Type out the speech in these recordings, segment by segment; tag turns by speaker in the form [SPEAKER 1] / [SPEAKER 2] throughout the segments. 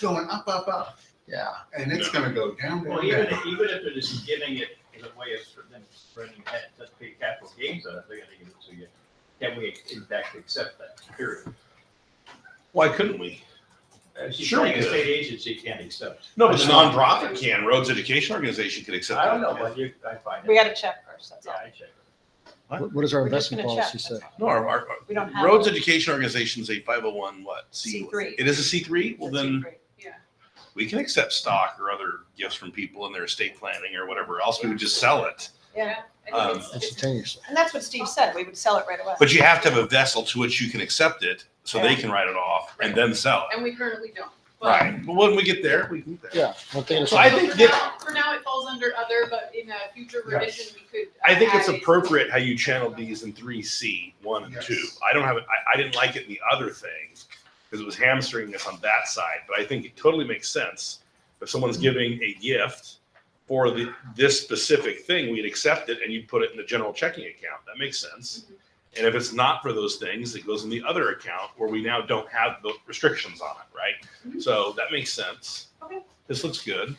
[SPEAKER 1] going up, up, up,
[SPEAKER 2] Yeah,
[SPEAKER 1] and it's gonna go down,
[SPEAKER 3] Well,
[SPEAKER 1] down,
[SPEAKER 3] even
[SPEAKER 1] down.
[SPEAKER 3] if, even if it is giving it as a way of sort of them spreading that, that's pay capital gains on it, they're gonna give it to you. Can we in fact accept that, period?
[SPEAKER 4] Why couldn't we?
[SPEAKER 3] As you
[SPEAKER 4] Sure we
[SPEAKER 3] say, a
[SPEAKER 4] could.
[SPEAKER 3] state agency can't accept.
[SPEAKER 4] No, but a nonprofit can. Rhodes Education Organization could accept.
[SPEAKER 3] I don't know,
[SPEAKER 4] that.
[SPEAKER 3] but you, I find it.
[SPEAKER 5] We gotta check first, that's
[SPEAKER 3] Yeah,
[SPEAKER 5] all.
[SPEAKER 3] I check.
[SPEAKER 2] what what does our
[SPEAKER 5] We're just
[SPEAKER 2] investment
[SPEAKER 5] gonna check,
[SPEAKER 2] policy say?
[SPEAKER 5] that's all.
[SPEAKER 4] No, our, our,
[SPEAKER 5] We don't have.
[SPEAKER 4] Rhodes
[SPEAKER 5] it.
[SPEAKER 4] Education Organization is a five hundred one what? Uh-huh. C-
[SPEAKER 5] C3.
[SPEAKER 4] It is a C three. Well,
[SPEAKER 5] It's a
[SPEAKER 4] then
[SPEAKER 5] secret, Yeah.
[SPEAKER 4] we can accept stock or other gifts from people in their estate planning or whatever else. We would just sell it.
[SPEAKER 5] Yeah,
[SPEAKER 4] Um,
[SPEAKER 5] and it's- it's-
[SPEAKER 2] Instantaneously.
[SPEAKER 5] and that's what Steve said, we would sell it right away.
[SPEAKER 4] But you have to have a vessel to which you can accept it, so they can write it off and then sell it.
[SPEAKER 6] And we currently don't. But
[SPEAKER 4] Right. But when we get there, we can. do that.
[SPEAKER 2] Yeah. one thing at a
[SPEAKER 4] So I
[SPEAKER 2] time.
[SPEAKER 4] think
[SPEAKER 6] For
[SPEAKER 4] that-
[SPEAKER 6] now, for now, it falls under other, but in a future
[SPEAKER 4] Yes.
[SPEAKER 6] revision, we could.
[SPEAKER 4] I think it's
[SPEAKER 6] add it.
[SPEAKER 4] appropriate how you channeled these in three C, one and
[SPEAKER 1] Yes.
[SPEAKER 4] two. I don't have it, I, I didn't like it in the other thing because it was hamstringing us on that side, but I think it totally makes sense. If someone's giving a gift for the, this specific thing, we'd accept it and you'd put it in the general checking account. That makes sense.
[SPEAKER 6] Mhm.
[SPEAKER 4] And if it's not for those things, it goes in the other account where we now don't have the restrictions on it, right?
[SPEAKER 6] Mhm.
[SPEAKER 4] So that makes sense.
[SPEAKER 6] Okay.
[SPEAKER 4] This looks good.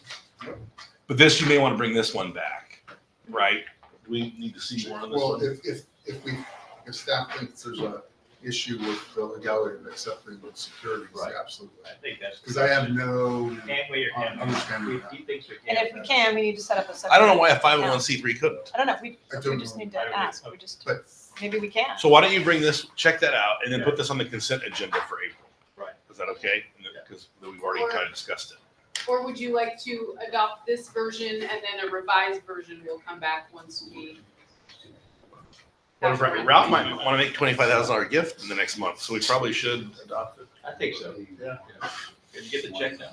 [SPEAKER 4] But this, you may want to bring this one back, right? We need to see more on this
[SPEAKER 1] Well,
[SPEAKER 4] one.
[SPEAKER 1] if, if, if we, if staff thinks there's a issue with the legality of accepting with securities,
[SPEAKER 3] Right.
[SPEAKER 1] absolutely.
[SPEAKER 3] I think that's.
[SPEAKER 1] Because I have no,
[SPEAKER 3] Can't we or can't we?
[SPEAKER 1] Understand.
[SPEAKER 3] He- He thinks we
[SPEAKER 5] And
[SPEAKER 3] can.
[SPEAKER 5] if we can, we need to set up a separate.
[SPEAKER 4] I don't know why a five
[SPEAKER 5] account.
[SPEAKER 4] hundred one C three couldn't.
[SPEAKER 5] I don't know, we,
[SPEAKER 1] I
[SPEAKER 5] we
[SPEAKER 1] don't
[SPEAKER 5] just
[SPEAKER 1] know,
[SPEAKER 5] need
[SPEAKER 3] I don't
[SPEAKER 5] to
[SPEAKER 3] know.
[SPEAKER 5] ask, we just,
[SPEAKER 1] but
[SPEAKER 5] maybe we can.
[SPEAKER 4] So why don't you bring this, check that out, and then put this on the consent agenda for April?
[SPEAKER 3] Right.
[SPEAKER 4] Is that okay? Because we've already kind of discussed it.
[SPEAKER 6] Or would you like to adopt this version and then a revised version will come back once we?
[SPEAKER 4] What if Ralph might want to make twenty five thousand dollar gift in the next month, so we probably should adopt it.
[SPEAKER 3] I think so. Yeah. Can you get the check now?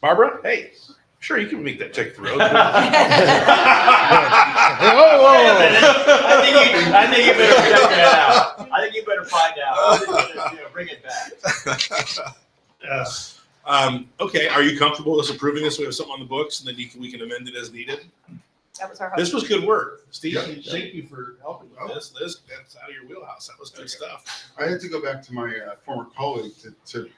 [SPEAKER 4] Barbara, hey, sure you can make that check through.
[SPEAKER 5] Oh.
[SPEAKER 3] I think you, I think you better check that out. I think you better find out. I think you better, you know, Bring it back.
[SPEAKER 4] Um, okay, are you comfortable with us approving this? We have something on the books, and then you can, we can amend it as needed.
[SPEAKER 5] That was our hope.
[SPEAKER 4] This was good work, Steve.
[SPEAKER 1] Yeah.
[SPEAKER 4] Thank you for helping with this. This that's out of your wheelhouse. That was good stuff.
[SPEAKER 1] I had to go back to my uh, former colleague to, to,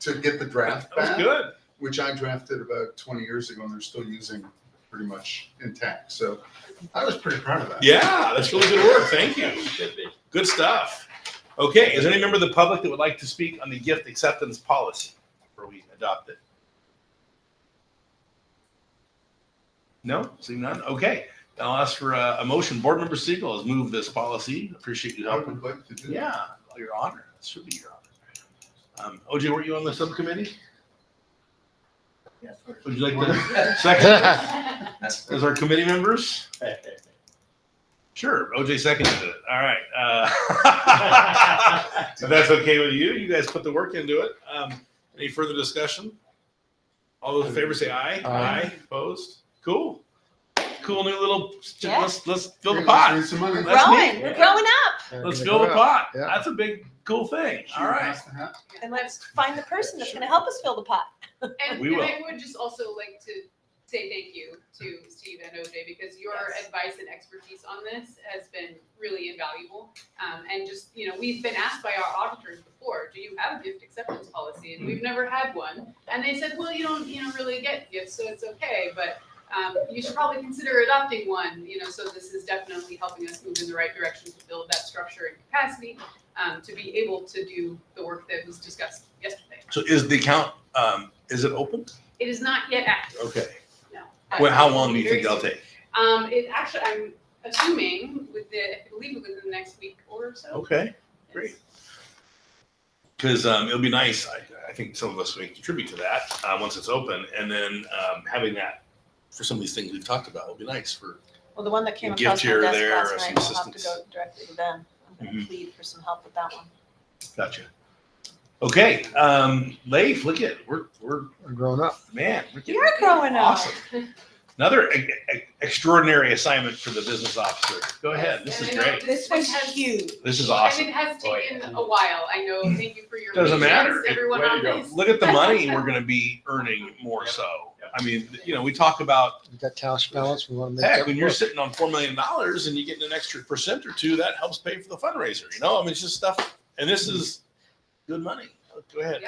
[SPEAKER 1] to get the draft
[SPEAKER 4] That was
[SPEAKER 1] back.
[SPEAKER 4] good.
[SPEAKER 1] which I drafted about 20 years ago, and they're still using pretty much intact. So I was pretty proud of that.
[SPEAKER 4] Yeah, that's really good work. Thank you.
[SPEAKER 3] Should be.
[SPEAKER 4] Good stuff. Okay, is there any member of the public that would like to speak on the gift acceptance policy before we adopt it? No, see none. Okay, then I'll ask for a, a motion. Board Member Siegel has moved this policy. Appreciate you
[SPEAKER 1] I
[SPEAKER 4] helping.
[SPEAKER 1] would like to do that.
[SPEAKER 4] Yeah, your honor. That should be your honor. Um, OJ, were you on the subcommittee? Would you like to second as our committee members? Sure, OJ seconded it. All right. Uh, If that's okay with you, you guys put the work into it. Um, any further discussion? All those in favor say aye.
[SPEAKER 2] Aye.
[SPEAKER 4] Opposed? Cool. Cool new little,
[SPEAKER 5] Yeah.
[SPEAKER 4] let's, let's fill the
[SPEAKER 1] Hey, let's
[SPEAKER 4] pot.
[SPEAKER 1] raise some money.
[SPEAKER 5] We're
[SPEAKER 4] That's
[SPEAKER 5] growing,
[SPEAKER 4] neat.
[SPEAKER 5] we're growing up,
[SPEAKER 4] Let's fill the pot.
[SPEAKER 2] Yeah.
[SPEAKER 4] That's a big, cool thing.
[SPEAKER 1] She
[SPEAKER 4] All right.
[SPEAKER 1] wants to have-
[SPEAKER 5] and let's find the person that's gonna help us fill the pot.
[SPEAKER 6] And,
[SPEAKER 4] We
[SPEAKER 6] and I would just also like to say thank you to Steve and OJ because your
[SPEAKER 5] Yes.
[SPEAKER 6] advice and expertise on this has been really invaluable. Um, and just, you know, we've been asked by our auditors before, do you have a gift acceptance policy? And we've never had one. And they said, well, you don't, you don't really get gifts, so it's okay, but, um, you should probably consider adopting one, you know, so this is definitely helping us move in the right direction to build that structure and capacity, um, to be able to do the work that was discussed yesterday.
[SPEAKER 4] So is the account, um, is it open?
[SPEAKER 6] It is not yet active.
[SPEAKER 4] Okay.
[SPEAKER 6] No.
[SPEAKER 4] Well, how long do you think
[SPEAKER 6] Very
[SPEAKER 4] that'll take?
[SPEAKER 6] Um, it actually, I'm assuming with the, I believe within the next week or so.
[SPEAKER 4] Okay. Oh, Great. Because um, it'll be nice. I, I think some of us may contribute to that uh, once it's open. And then um, having that for some of these things we've talked about will be nice for
[SPEAKER 5] Well, the one that came
[SPEAKER 4] A gift
[SPEAKER 5] across my
[SPEAKER 4] here or
[SPEAKER 5] desk
[SPEAKER 4] there, or
[SPEAKER 5] last
[SPEAKER 4] some
[SPEAKER 5] night, we'll have to go
[SPEAKER 4] assistance.
[SPEAKER 5] directly to them. I'm gonna
[SPEAKER 4] Mhm.
[SPEAKER 5] plead for some help with that one.
[SPEAKER 4] Gotcha. Okay, um, Leif, look at we're we're
[SPEAKER 2] We're growing up.
[SPEAKER 4] man, we're getting
[SPEAKER 5] You're growing up.
[SPEAKER 4] awesome. Another e- e- extraordinary assignment for the business officer. Go ahead, this is
[SPEAKER 6] And I know
[SPEAKER 4] great.
[SPEAKER 5] This was huge.
[SPEAKER 4] This is
[SPEAKER 6] And
[SPEAKER 4] awesome.
[SPEAKER 6] it has
[SPEAKER 4] Oh,
[SPEAKER 6] taken a while. I know. Thank you for your.
[SPEAKER 4] Doesn't
[SPEAKER 6] patience,
[SPEAKER 4] matter. It-
[SPEAKER 6] Everyone
[SPEAKER 3] way to
[SPEAKER 6] on
[SPEAKER 3] go.
[SPEAKER 6] this.
[SPEAKER 4] Look at the money we're going to be earning more
[SPEAKER 3] Yep.
[SPEAKER 4] so.
[SPEAKER 3] Yep.
[SPEAKER 4] I mean, you know, we talk about
[SPEAKER 2] We've got cash balance. We want to make
[SPEAKER 4] heck
[SPEAKER 2] that
[SPEAKER 4] when you're
[SPEAKER 2] work.
[SPEAKER 4] sitting on four million dollars and you get an extra percent or two, that helps pay for the fundraiser. You know, I mean, it's just stuff. And this is good money. Go ahead.